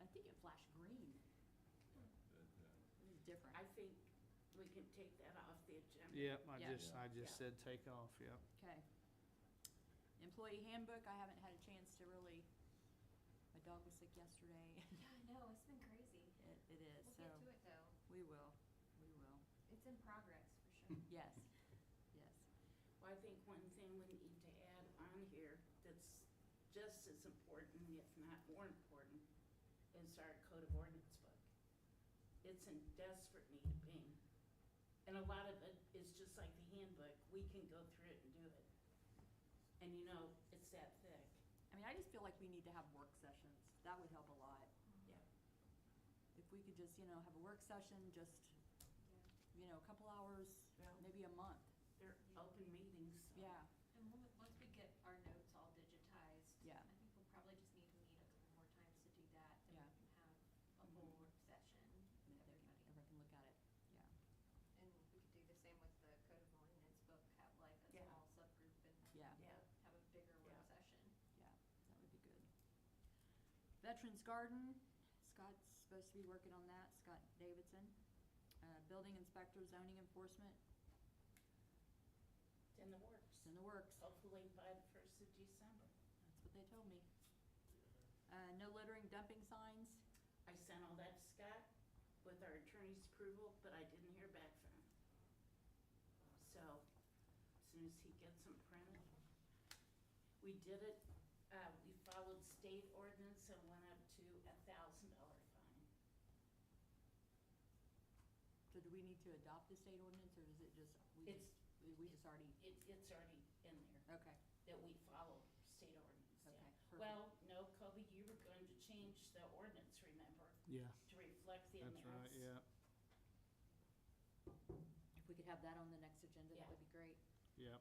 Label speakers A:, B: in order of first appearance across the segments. A: make it flash green. It was different.
B: I think we can take that off the agenda.
C: Yep, I
A: Yeah.
C: just, I
B: Yeah.
C: just said take off, yep.
A: Okay. Employee handbook, I haven't had a chance to really, my dog was sick yesterday.
D: Yeah, I know, it's been crazy.
A: It, it is, so.
D: We'll get to it though.
A: We will, we will.
D: It's in progress for sure.
A: Yes, yes.
B: Well, I think one thing we need to add on here that's just as important, if not more important, is our code of ordinance book. It's in desperate need of being. And a lot of it is just like the handbook, we can go through it and do it. And you know, it's that thick,
A: I mean, I just feel like we need to have work sessions. That would help a lot.
D: Mm-hmm.
B: yeah.
A: If we could just, you know, have a work session, just,
D: Yeah.
A: you know, a couple hours,
B: Yeah.
A: maybe a month.
B: They're open meetings. so-
A: Yeah,
D: And when, we- once we get our notes all digitized.
A: Yeah.
D: I think we'll probably just need to meet a couple more times to do that. Then we
A: Yeah.
D: can have a whole
B: Mhm.
D: work session,
A: and if
D: with
A: they can- everyone
D: everybody.
A: can look at it, yeah.
D: And we could do the same with the code of ordinance book, have like a
B: Yeah.
D: small subgroup and.
A: Yeah.
B: Yeah.
D: Have a bigger
B: Yeah.
D: work session.
A: Yeah, that would be good. Veterans Garden, Scott's supposed to be working on that, Scott Davidson. Uh, Building Inspector Zoning Enforcement,
B: It's in the works.
A: it's in the works.
B: Hopefully by the first of December.
A: That's what they told me. Uh, No littering dumping signs,
B: I sent all that to Scott with our attorney's approval, but I didn't hear back from him. So, as soon as he gets them printed, we did it, uh, we followed state ordinance and went up to a thousand dollar fine.
A: so do we need to adopt the state ordinance, or is it just, we just, we just already,
B: It, it's already in there.
A: okay,
B: that we follow state ordinance, yeah.
A: Okay, perfect.
B: Well, no, Kobe, you were going to change the ordinance, remember,
C: Yeah,
B: to reflect the
C: that's
B: amounts.
C: right, yeah,
A: if we could have that on the next agenda, that would be
B: Yeah.
A: great.
C: yeah,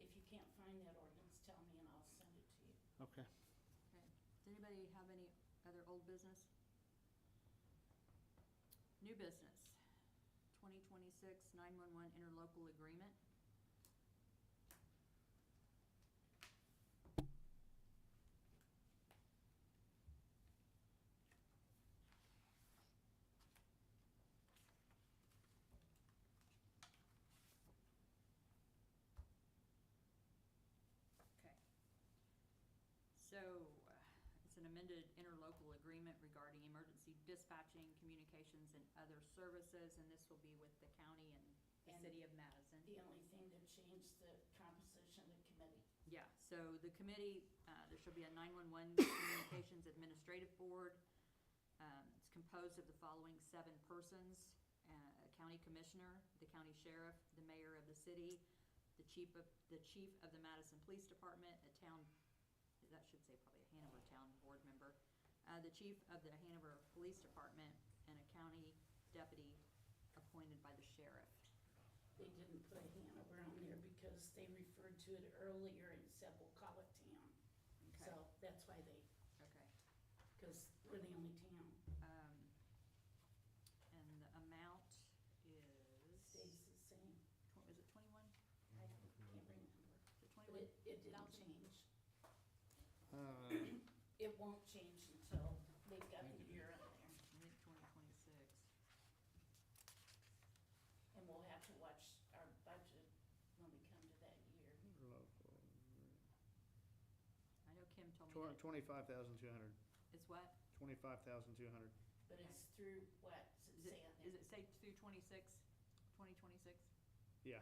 B: If you can't find that ordinance, tell me and I'll send it to you.
C: okay.
A: Okay. Does anybody have any other old business? New business, 2026 911 interlocal agreement. Okay. So, uh, it's an amended interlocal agreement regarding emergency dispatching, communications, and other services, and this will be with the county and the
B: And-
A: city of Madison.
B: The only thing that changed the composition of the committee.
A: Yeah, so the committee, uh, there should be a 911 Communications Administrative Board. Um, It's composed of the following seven persons, uh, a county commissioner, the county sheriff, the mayor of the city, the chief of, the chief of the Madison Police Department, a town, that should say probably a Hanover Town Board member, uh, the chief of the Hanover Police Department, and a county deputy appointed by the sheriff.
B: They didn't put Hanover on there because they referred to it earlier and said, we'll call it town.
A: Okay.
B: So that's why they,
A: Okay.
B: because we're the only town.
A: Um, And the amount is,
B: Stays the
E: Mm-hmm.
B: same.
A: tw- is it twenty-one?
B: I can't remember.
A: Is it
B: But
A: twenty-one?
B: it, it didn't change.
C: Uh,
B: It won't change until they've got
E: Thank
B: the
E: you,
B: year
E: Denise.
B: on
A: I
B: there.
A: think twenty twenty-six.
B: And we'll have to watch our budget when we come to that year.
C: Local,
A: I know Kim told me
C: tw-
A: that.
C: twenty-five thousand two hundred,
A: It's what?
C: twenty-five thousand two hundred.
B: But it's through what?
A: Is
B: Does it say
A: it,
B: on
A: is
B: there?
A: it say through twenty-six? Twenty twenty-six?
C: Yeah,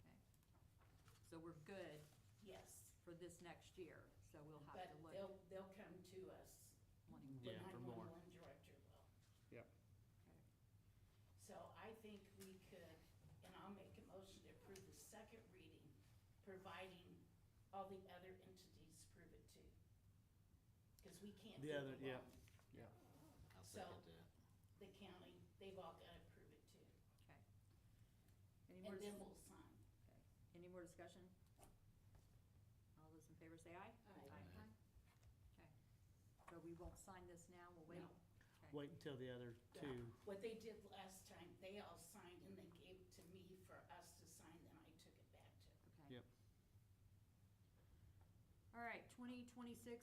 A: Okay. So we're good
B: Yes.
A: for this next year, so we'll have to
B: But they'll,
A: look.
B: they'll come to us.
A: wanting-
C: Yeah,
B: The
C: for more.
B: 911 Director will.
C: yeah,
A: okay.
B: So I think we could, and I'll make a motion to approve the second reading, providing all the other entities prove it too. Because we can't do
C: The other-
B: it
C: yeah.
B: alone.
C: yeah.
E: I'll
B: So-
E: second that.
B: The county, they've all got to prove it too.
A: Okay. Any more,
B: And
A: dis-
B: then we'll sign.
A: okay. Any more discussion? All those in favor say aye?
B: Aye.
E: Aye.
A: Okay. So we won't sign this now, we'll wait?
B: No.
A: Okay.
C: Wait until the other
B: Yeah.
C: two,
B: What they did last time, they all signed and they gave it to me for us to sign, then I took it back to them.
A: Okay.
C: yep.
A: All right, twenty twenty-six